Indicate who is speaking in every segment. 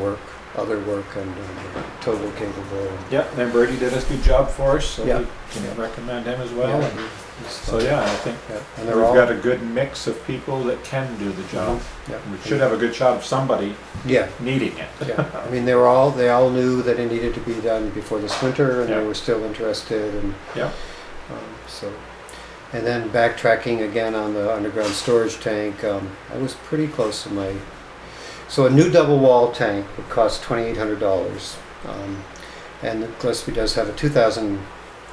Speaker 1: work, other work, and um, we're totally capable.
Speaker 2: Yep, and Brady did a good job for us, so
Speaker 1: Yeah.
Speaker 2: we can recommend him as well.
Speaker 1: Yeah,
Speaker 2: And
Speaker 1: he's-
Speaker 2: So yeah, I think
Speaker 1: yeah, and
Speaker 2: we've
Speaker 1: they're all. Mhm.
Speaker 2: got a good mix of people that can do the job. We should have a good shot of somebody
Speaker 1: Yeah,
Speaker 2: needing it.
Speaker 1: yeah. I mean, they were all, they all knew that it needed to be done before this winter, and they
Speaker 2: Yeah.
Speaker 1: were still interested, and
Speaker 2: Yeah.
Speaker 1: um, so. And then backtracking again on the underground storage tank, um, I was pretty close to my. So a new double wall tank would cost twenty eight hundred dollars, um, and Gillespie does have a two thousand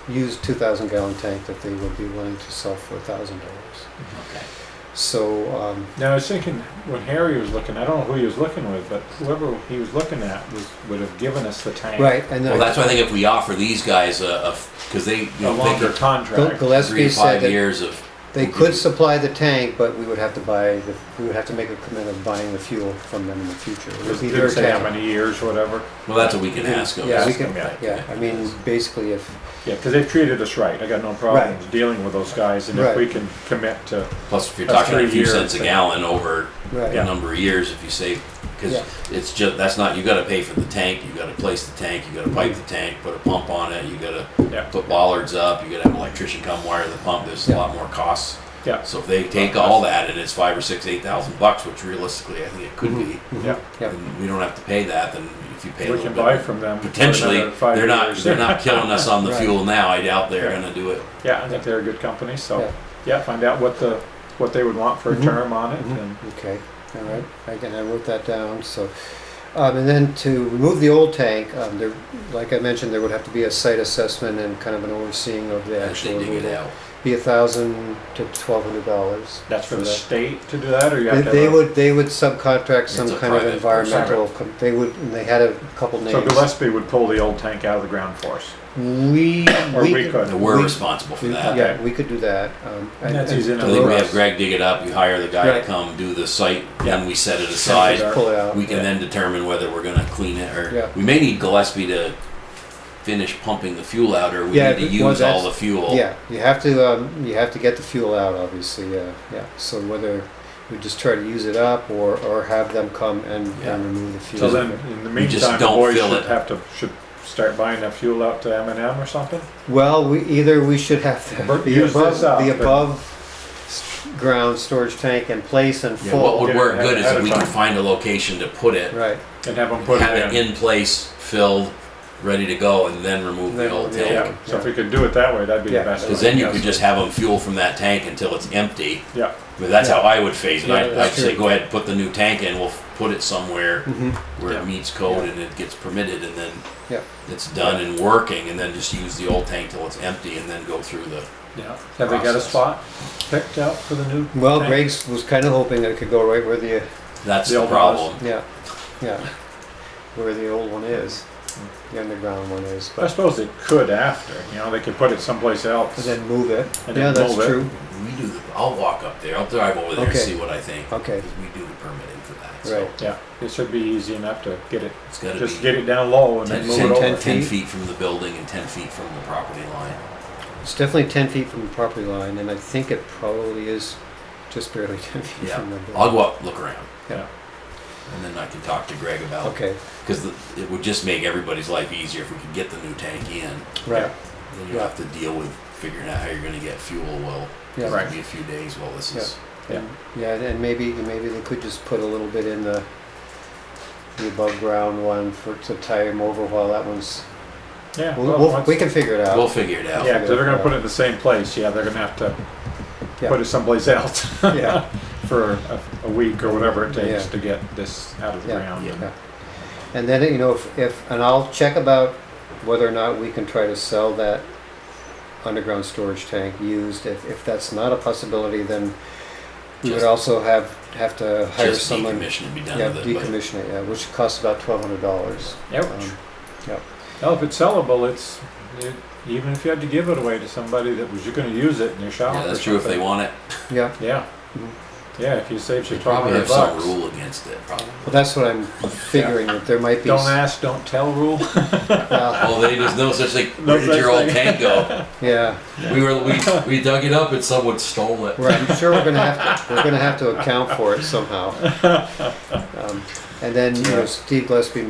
Speaker 1: used two thousand gallon tank that they would be willing to sell for thousand dollars. So um,
Speaker 2: Now I was thinking when Harry was looking, I don't know who he was looking with, but whoever he was looking at was would have given us the tank
Speaker 1: right, and then
Speaker 3: Well, that's why I think if we offer these guys a, because they, you
Speaker 2: a
Speaker 3: know, they
Speaker 2: longer
Speaker 3: could
Speaker 1: Gil-
Speaker 2: contract.
Speaker 3: three
Speaker 1: Gillespie
Speaker 3: to
Speaker 1: said
Speaker 3: five
Speaker 1: that
Speaker 3: years of.
Speaker 1: they
Speaker 3: would
Speaker 1: could
Speaker 3: be-
Speaker 1: supply the tank, but we would have to buy the, we would have to make a commitment of buying the fuel from them in the future. It would be their
Speaker 2: Didn't say how
Speaker 1: tank.
Speaker 2: many years, whatever.
Speaker 3: Well, that's what we can ask them.
Speaker 1: Yeah, we
Speaker 2: Ask them,
Speaker 1: can,
Speaker 2: yeah.
Speaker 1: yeah, I mean, basically if,
Speaker 2: Yeah, because they've treated us right. I got no problems dealing with those guys, and
Speaker 1: Right.
Speaker 2: if we can commit to
Speaker 3: Plus, if you're
Speaker 2: That's
Speaker 3: talking a
Speaker 2: three
Speaker 3: few
Speaker 2: years,
Speaker 3: cents a
Speaker 2: so-
Speaker 3: gallon over a
Speaker 1: right,
Speaker 3: number of years, if you save, because
Speaker 1: Yeah.
Speaker 3: it's just that's not you got to pay for the tank, you got to place the tank, you got to pipe the tank, put a pump on it, you got to
Speaker 2: yeah,
Speaker 3: put bollards up, you got to have an electrician come wire the pump. There's
Speaker 1: Yeah.
Speaker 3: a lot more costs.
Speaker 2: yeah,
Speaker 3: So if they take all that and it's five or six, eight thousand bucks, which realistically I think it could be,
Speaker 2: yeah.
Speaker 1: Mm-hmm. yeah,
Speaker 3: and we don't have to pay that. Then if you pay a
Speaker 2: We
Speaker 3: little
Speaker 2: can
Speaker 3: bit,
Speaker 2: buy from them for
Speaker 3: potentially
Speaker 2: another five
Speaker 3: they're not
Speaker 2: years.
Speaker 3: they're not killing us on the
Speaker 1: Right.
Speaker 3: fuel now. I doubt they're
Speaker 2: Yeah.
Speaker 3: going to do it.
Speaker 2: Yeah, I think they're a good company,
Speaker 1: Yeah.
Speaker 2: so, yeah, find out what the, what they would want for a
Speaker 1: Mhm.
Speaker 2: term on it,
Speaker 1: Mhm.
Speaker 2: and,
Speaker 1: okay, all right, again, I wrote that down, so. Um, and then to remove the old tank, um, there, like I mentioned, there would have to be a site assessment and kind of an overseeing of the
Speaker 3: As
Speaker 1: actual
Speaker 3: they dig it
Speaker 1: removal.
Speaker 3: out.
Speaker 1: Be a thousand to twelve hundred dollars.
Speaker 2: that's for the state to do that, or you
Speaker 1: They,
Speaker 2: have to?
Speaker 1: they
Speaker 2: have a-
Speaker 1: would, they would subcontract some
Speaker 3: It's a
Speaker 1: kind of
Speaker 3: private-
Speaker 1: environmental, com- they would, and they had a couple
Speaker 2: So
Speaker 1: names.
Speaker 2: Gillespie would pull the old tank out of the ground for us,
Speaker 1: We,
Speaker 2: or
Speaker 1: we
Speaker 2: we
Speaker 3: And
Speaker 2: could.
Speaker 3: we're
Speaker 1: We-
Speaker 3: responsible for
Speaker 1: we-
Speaker 3: that.
Speaker 1: Yeah, we could do that. um, and-
Speaker 2: That's
Speaker 1: and
Speaker 2: easy
Speaker 3: I
Speaker 2: enough.
Speaker 1: the
Speaker 3: think we
Speaker 1: road-
Speaker 3: have Greg dig it up. You hire the guy
Speaker 1: Right.
Speaker 3: to come do the site,
Speaker 2: Yeah.
Speaker 3: then we set it aside.
Speaker 2: Yeah.
Speaker 1: Pull it out.
Speaker 3: We can
Speaker 2: Yeah.
Speaker 3: then determine whether we're going to clean it or
Speaker 1: Yeah.
Speaker 3: we may need Gillespie to finish pumping the fuel out, or we
Speaker 1: Yeah,
Speaker 3: need to
Speaker 1: well,
Speaker 3: use all
Speaker 1: that's-
Speaker 3: the fuel.
Speaker 1: Yeah, you have to, um, you have to get the fuel out, obviously, yeah, yeah. So whether we just try to use it up or, or have them come and,
Speaker 3: Yeah.
Speaker 1: and remove the fuel.
Speaker 2: So then, in the
Speaker 3: You just
Speaker 2: meantime, the
Speaker 3: don't
Speaker 2: boys
Speaker 3: fill
Speaker 2: should
Speaker 3: it.
Speaker 2: have to, should start buying that fuel out to M and M or something?
Speaker 1: Well, we, either we should have the-
Speaker 2: Bur-
Speaker 1: the
Speaker 2: use
Speaker 1: above,
Speaker 2: this up,
Speaker 1: the
Speaker 2: but-
Speaker 1: above s- ground storage tank in place and
Speaker 3: Yeah, what
Speaker 1: full,
Speaker 3: would
Speaker 2: Yeah,
Speaker 3: work good is
Speaker 2: ahead
Speaker 3: if
Speaker 2: of
Speaker 3: we can
Speaker 2: time.
Speaker 3: find a location to put it,
Speaker 1: right.
Speaker 2: And have them put
Speaker 3: have it
Speaker 2: it in?
Speaker 3: in place, filled, ready to go, and then remove
Speaker 1: Then
Speaker 3: the old
Speaker 1: remove the
Speaker 3: tank.
Speaker 2: Yeah, so if we could do it that way, that'd be
Speaker 1: Yeah.
Speaker 2: the best.
Speaker 3: Because
Speaker 2: way,
Speaker 3: then you
Speaker 2: yes.
Speaker 3: could just have them fuel from that tank until it's empty.
Speaker 2: Yeah,
Speaker 3: I mean, that's how I would phase it.
Speaker 1: Yeah,
Speaker 3: I'd, I'd
Speaker 1: that's
Speaker 3: say
Speaker 1: true.
Speaker 3: go ahead and put the new tank in. We'll f- put it somewhere
Speaker 1: Mhm.
Speaker 3: where
Speaker 2: Yeah.
Speaker 3: it meets code and it gets permitted, and then
Speaker 1: Yeah.
Speaker 3: it's done and working. And then just use the old tank till it's empty, and then go through the.
Speaker 2: yeah. Have they got a
Speaker 3: Process.
Speaker 2: spot picked out for the new?
Speaker 1: Well,
Speaker 2: tank?
Speaker 1: Greg's was kind of hoping that it could go right where the,
Speaker 3: That's
Speaker 2: The
Speaker 3: the,
Speaker 2: old one was-
Speaker 3: problem.
Speaker 1: yeah, yeah, where the old one is, the underground one is, but.
Speaker 2: I suppose they could after, you know, they could put it someplace else.
Speaker 1: And then move it.
Speaker 2: And
Speaker 1: Yeah,
Speaker 2: then
Speaker 1: that's
Speaker 2: move it.
Speaker 1: true.
Speaker 3: We do. The, I'll walk up there. I'll drive over there and
Speaker 1: Okay.
Speaker 3: see what I think.
Speaker 1: Okay.
Speaker 3: 'Cause we do the permitting for that. So
Speaker 1: Right.
Speaker 2: Yeah, it should be easy enough to get it,
Speaker 3: It's got to
Speaker 2: just
Speaker 3: be
Speaker 2: get it down low and then
Speaker 3: 10,
Speaker 2: move it over.
Speaker 3: 10 10 feet from the building and ten feet from the property line.
Speaker 1: It's definitely ten feet from the property line, and I think it probably is just barely ten feet
Speaker 3: Yeah.
Speaker 1: from the
Speaker 3: I'll
Speaker 1: building.
Speaker 3: go up, look around,
Speaker 2: Yeah,
Speaker 3: and then I can talk to Greg about.
Speaker 1: Okay,
Speaker 3: Because it would just make everybody's life easier if we could get the new tank in.
Speaker 1: right,
Speaker 3: Then you have to deal with figuring out how you're going to get fuel. Well,
Speaker 1: yeah.
Speaker 3: it might
Speaker 2: Right.
Speaker 3: be a few days while this is.
Speaker 2: Yeah.
Speaker 1: And- Yeah, and- and maybe, maybe they could just put a little bit in the, the above ground one for, to tie him over while that one's,
Speaker 2: yeah.
Speaker 1: we'll,
Speaker 2: well,
Speaker 1: we'll- we
Speaker 2: once-
Speaker 1: can figure it
Speaker 3: We'll
Speaker 1: out.
Speaker 3: figure it out.
Speaker 2: Yeah, because they're gonna put it in the same place, yeah, they're gonna have to
Speaker 1: Yeah.
Speaker 2: put it someplace else
Speaker 1: Yeah.
Speaker 2: for a, a week or whatever it takes
Speaker 1: Yeah.
Speaker 2: to get this out of the
Speaker 1: Yeah.
Speaker 2: ground. and-
Speaker 1: Yeah. And then, you know, if, if, and I'll check about whether or not we can try to sell that underground storage tank used. If, if that's not a possibility, then we would
Speaker 3: Just-
Speaker 1: also have, have to hire
Speaker 3: Just
Speaker 1: someone.
Speaker 3: decommission and be done
Speaker 1: Yeah,
Speaker 3: with it.
Speaker 1: decommission it, yeah, which costs about twelve hundred dollars. um,
Speaker 2: Ouch. Well, if it's sellable, it's, it- even if you had to give it away to somebody that was, you're gonna use it in your
Speaker 3: But
Speaker 2: shop
Speaker 3: yeah,
Speaker 2: or
Speaker 3: that's true if they
Speaker 2: something.
Speaker 3: want it.
Speaker 1: Yeah,
Speaker 2: Yeah,
Speaker 1: Mhm.
Speaker 2: yeah, if you save
Speaker 3: They
Speaker 2: your twelve
Speaker 3: probably
Speaker 2: hundred
Speaker 3: have some
Speaker 2: bucks.
Speaker 3: rule against it. Probably.
Speaker 1: well, that's what I'm figuring, that there might be.
Speaker 2: Don't
Speaker 1: s-
Speaker 2: ask, don't tell rule.
Speaker 1: well,
Speaker 3: Oh, they there's no such thing.
Speaker 2: No
Speaker 3: Where did your
Speaker 2: such
Speaker 3: old
Speaker 2: thing.
Speaker 3: tank go?
Speaker 1: Yeah,
Speaker 3: We were we, we dug it up and someone stole it.
Speaker 1: right, I'm sure we're gonna have to, we're gonna have to account for it somehow. Um, And then, you know,
Speaker 2: Yeah.
Speaker 1: Steve Gillespie